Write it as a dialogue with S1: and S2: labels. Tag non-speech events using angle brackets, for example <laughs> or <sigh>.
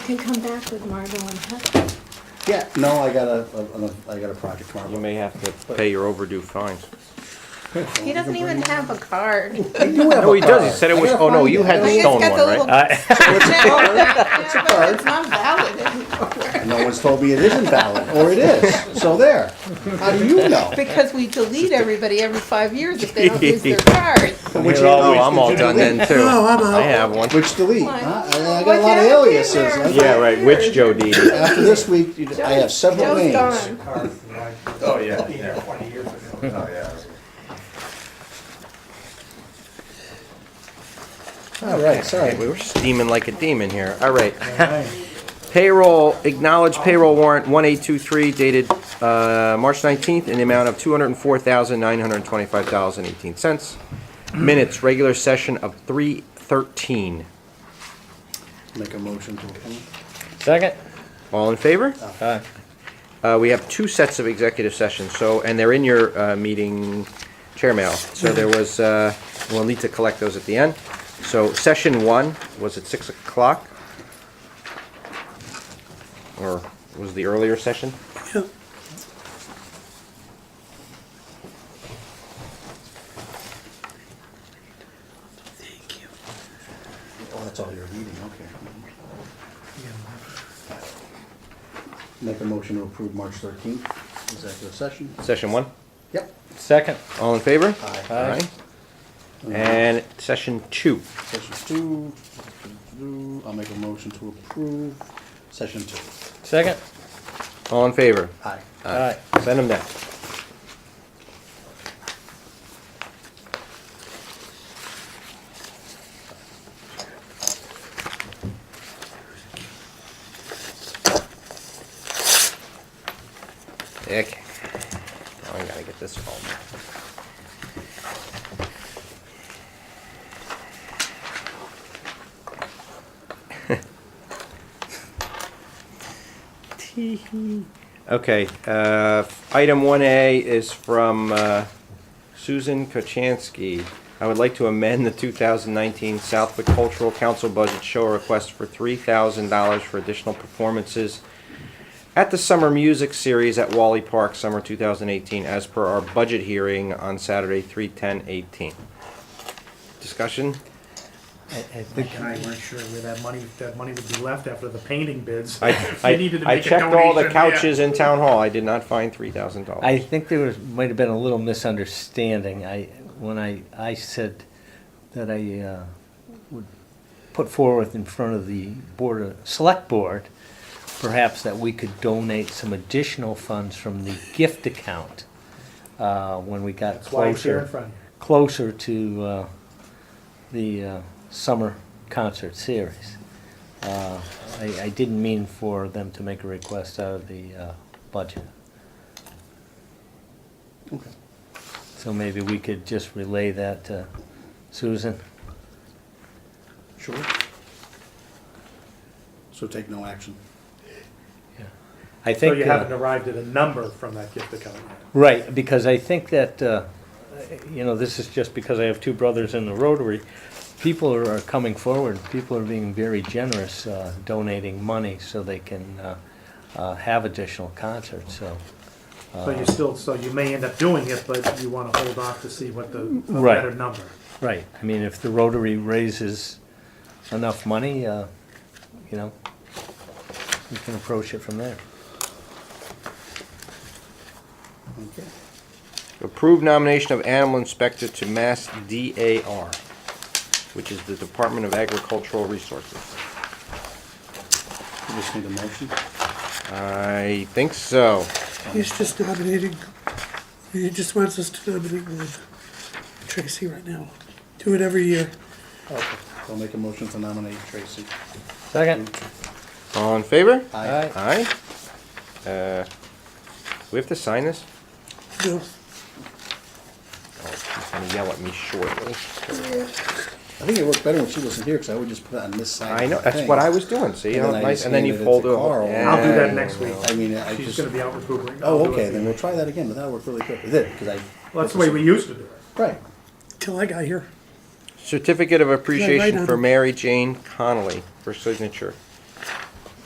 S1: can come back with Margot and Heather.
S2: Yeah, no, I got a, a- a- I got a project tomorrow.
S3: You may have to pay your overdue fines.
S1: He doesn't even have a <laughs> card.
S2: I do have
S3: No, he
S2: a
S3: does, he
S2: car.
S3: said it
S2: I
S3: was-
S2: gotta
S3: oh, no,
S2: find
S3: you
S2: it.
S3: had
S2: I
S3: the
S1: He's
S2: don't-
S3: stone
S1: got
S3: one,
S1: the
S3: right?
S1: little <laughs> Yeah, but it's not valid anymore.
S2: No one's told me it isn't valid, or it is, so there. How do you know?
S1: Because we delete everybody every five years if they don't use their card.
S2: Which
S3: Here all
S2: always-
S3: week. Oh, I'm all done then too.
S2: No, I'm out.
S3: I have one.
S2: Which delete,
S1: Why?
S2: huh? I I got
S1: Why
S2: a lot of
S1: Joe's in
S2: aliases.
S1: there?
S2: I-
S3: Yeah, right, which Joe D?
S2: After this week, you- I have several
S1: Joe's
S2: names.
S1: gone.
S4: Oh, yeah. Twenty years ago. Oh, yeah.
S2: All right, sorry.
S3: We were steaming like a demon here, all right. <laughs> Payroll, acknowledge payroll warrant 1823 dated uh, March 19th in the amount of $204,925.18. Minutes, regular session of 3:13.
S2: Make a motion to approve.
S5: Second?
S3: All in favor?
S5: Aye.
S3: Uh, we have two sets of executive sessions, so, and they're in your, uh, meeting chair mail. So there was, uh, we'll need to collect those at the end. So session one was at six o'clock? Or was the earlier session?
S2: Oh, that's all you're reading, okay. Make a motion to approve March thirteenth, executive session.
S3: Session one?
S2: Yep.
S5: Second?
S3: All in favor?
S2: Aye.
S5: Aye.
S3: And session two.
S2: Session two, two, I'll make a motion to approve session two.
S5: Second?
S3: All in favor?
S2: Aye.
S5: Aye.
S3: Send them down. Okay. Now I gotta get this phone. <laughs> Okay, uh, item one A is from, uh, Susan Kochansky. I would like to amend the two thousand nineteen Southwick Cultural Council budget show request for three thousand dollars for additional performances at the Summer Music Series at Wally Park, summer two thousand eighteen, as per our budget hearing on Saturday, three ten eighteen. Discussion?
S6: I, I think and I weren't sure where that money, that money would be left after the painting bids.
S3: I,
S6: If they
S3: I,
S6: needed to
S3: I
S6: make a
S3: checked all the
S6: donation, yeah.
S3: couches in Town Hall. I did not find three thousand dollars.
S5: I think there was, might have been a little misunderstanding. I, when I, I said that I uh, would put forward in front of the board, of- select board, perhaps that we could donate some additional funds from the gift account uh, when we got
S6: That's why it's here in
S5: closer,
S6: front of you.
S5: closer to uh, the uh, summer concert series. Uh, I, I didn't mean for them to make a request out of the uh, budget.
S2: Okay.
S5: So maybe we could just relay that to Susan?
S2: Sure. So take no action.
S5: I
S6: So
S5: think,
S6: you
S5: uh,
S6: haven't arrived at a number from that gift account yet.
S5: right, because I think that, uh, you know, this is just because I have two brothers in the Rotary. People are are coming forward, people are being very generous uh, donating money so they can uh, uh, have additional concerts, so.
S6: So
S3: Uh.
S6: you still, so you may end up doing it, but you wanna hold off to see what the a
S5: Right.
S6: better number.
S5: Right, I mean, if the Rotary raises enough money, uh, you know, we can approach it from there.
S2: Okay.
S3: Approve nomination of animal inspector to Mass DAR, which is the Department of Agricultural Resources.
S2: We just need a motion.
S3: I think so.
S7: He's just nominating, he just wants us to nominate with Tracy right now. Do it every year.
S2: I'll make a motion to nominate Tracy.
S5: Second?
S3: All in favor?
S2: Aye.
S3: Aye. Uh, We have to sign this?
S7: No,
S3: Oh, She's gonna yell at me shortly.
S2: I think it worked better when she wasn't here, because I would just put it on this side.
S3: I know,
S2: of the
S3: that's what
S2: thing.
S3: I was doing, see?
S2: And then
S3: how
S2: I
S3: nice-
S2: just
S3: And then you
S2: handed it
S3: fold
S2: to
S3: it.
S2: Carl.
S3: over.
S6: I'll do that
S3: Yeah.
S6: next week.
S2: I mean, I
S6: She's
S2: just,
S6: gonna be out recuperating. I'll
S2: oh,
S6: do it.
S2: okay, then we'll try that again, but that worked really quick. It did, because I,
S6: Well, that's the way we used to do it.
S2: right.
S7: till I got here.
S3: Certificate of
S7: on
S3: appreciation for
S7: it?
S3: Mary Jane Connolly for signature.